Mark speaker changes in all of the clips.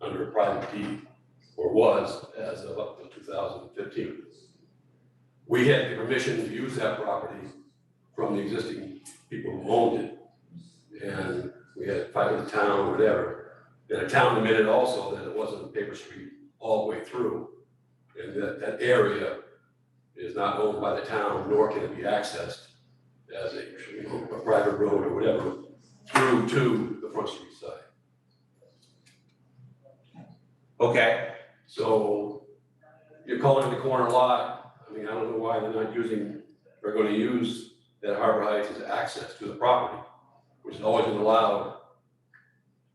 Speaker 1: under a private deed, or was as of up to two thousand and fifteen. We had the permission to use that property from the existing people who owned it. And we had to fight with the town, or whatever. And the town admitted also that it wasn't paper street all the way through. And that, that area is not owned by the town, nor can it be accessed as a, you know, a private road or whatever through to the front street side.
Speaker 2: Okay,
Speaker 1: So you're calling it a corner lot, I mean, I don't know why they're not using, they're gonna use that Harbor Heights as access to the property, which has always been allowed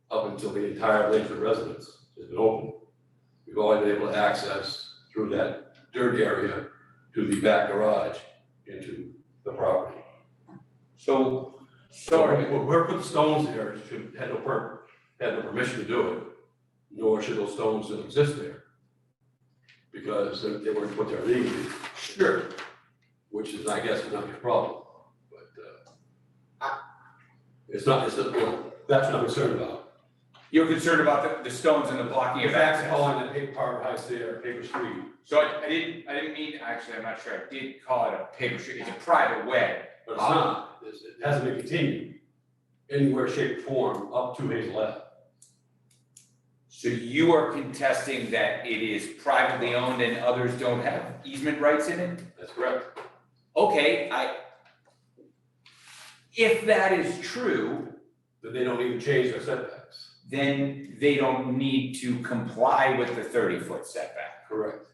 Speaker 1: up until the entire Lakewood residence has been open. We've always been able to access through that dirt area to the back garage into the property.
Speaker 2: so,
Speaker 1: So
Speaker 2: sorry,
Speaker 1: whoever whoever put the stones there should, had no per, had no permission to do it, nor should those stones still exist there. Because they they weren't put there legally,
Speaker 2: sure,
Speaker 1: which is, I guess, is not your problem, but, uh, it's not, it's, not- well, that's what I'm concerned about.
Speaker 2: you're concerned about the, the stones and the blocking
Speaker 1: If
Speaker 2: of
Speaker 1: that's
Speaker 2: access.
Speaker 1: calling the paper harbor house there, paper street,
Speaker 2: So I, I didn't, I didn't mean, actually, I'm not sure, I did call it a paper street, it's a private way.
Speaker 1: but it's not, it's, it hasn't been continued anywhere, shape, or form up to Hazel Ave.
Speaker 2: So you are contesting that it is privately owned and others don't have easement rights in it?
Speaker 1: That's correct.
Speaker 2: Okay, I. If that is true,
Speaker 1: But they don't even change their setbacks.
Speaker 2: then they don't need to comply with the thirty foot setback.
Speaker 1: Correct.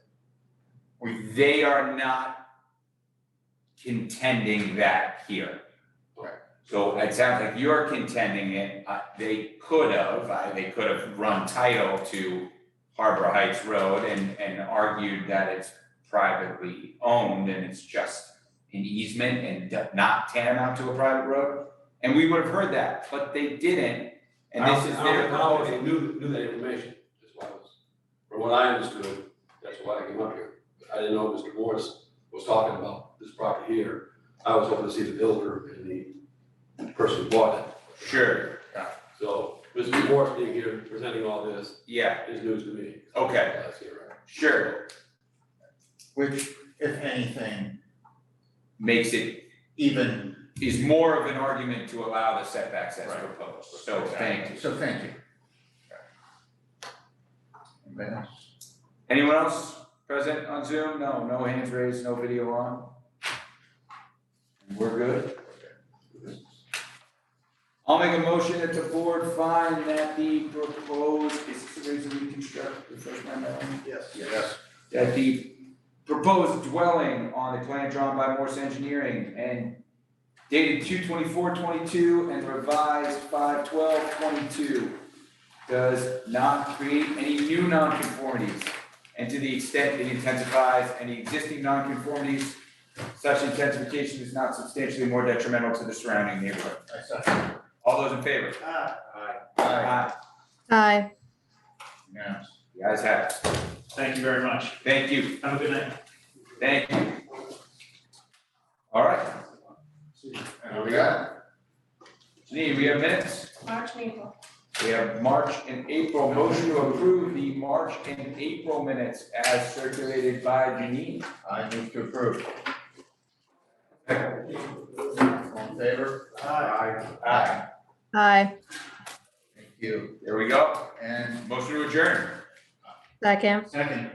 Speaker 2: They are not contending that here.
Speaker 1: Right.
Speaker 2: So it sounds like you're contending it, uh, they could have, uh, they could have run title to Harbor Heights Road and, and argued that it's privately owned and it's just an easement and d- not tantamount to a private road. And we would have heard that, but they didn't, and this is
Speaker 1: I don't-
Speaker 2: their.
Speaker 1: I don't think I knew, knew that information, that's why I was, from what I understood, that's why I came up here. I didn't know Mr. Morris was talking about this property here, I was hoping to see the builder and the person who bought it.
Speaker 2: Sure,
Speaker 1: So, Mr. Morris being here, presenting all this,
Speaker 2: yeah,
Speaker 1: is news to me.
Speaker 2: Okay.
Speaker 1: That's it, right?
Speaker 2: sure,
Speaker 3: which, if anything,
Speaker 2: makes it
Speaker 3: even,
Speaker 2: is more of an argument to allow the setbacks as
Speaker 3: Right.
Speaker 2: proposed, so thank you.
Speaker 3: so thank you. Anybody else?
Speaker 2: Anyone else present on Zoom? No, no hands raised, no video on? We're good? I'll make a motion that the board find that the proposed, is this the reason we construct, refresh my memory?
Speaker 3: Yes.
Speaker 2: Yes. That the proposed dwelling on the plan drawn by Morse Engineering and dated two twenty-four twenty-two and revised five twelve twenty-two does not create any new nonconformities, and to the extent it intensifies any existing nonconformities, such intensification is not substantially more detrimental to the surrounding neighborhood.
Speaker 3: I second.
Speaker 2: All those in favor?
Speaker 3: Aye,
Speaker 2: Aye.
Speaker 4: Aye.
Speaker 3: yes.
Speaker 2: The ayes have it.
Speaker 5: Thank you very much.
Speaker 2: Thank you,
Speaker 5: Have a good night.
Speaker 2: thank you. All right,
Speaker 3: And we got,
Speaker 2: Janine, we have minutes?
Speaker 6: March, and April.
Speaker 2: We have March and April, motion to approve the March and April minutes as circulated by Janine.
Speaker 3: I move to approve. All in favor? Aye. Aye.
Speaker 4: Aye.
Speaker 3: Thank you.
Speaker 2: There we go,
Speaker 3: And
Speaker 2: motion to adjourn,
Speaker 4: Second.
Speaker 3: second.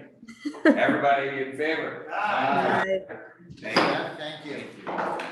Speaker 2: everybody in favor?
Speaker 3: Aye.
Speaker 4: Aye.
Speaker 2: Thank you.
Speaker 3: Thank you.
Speaker 2: Thank you.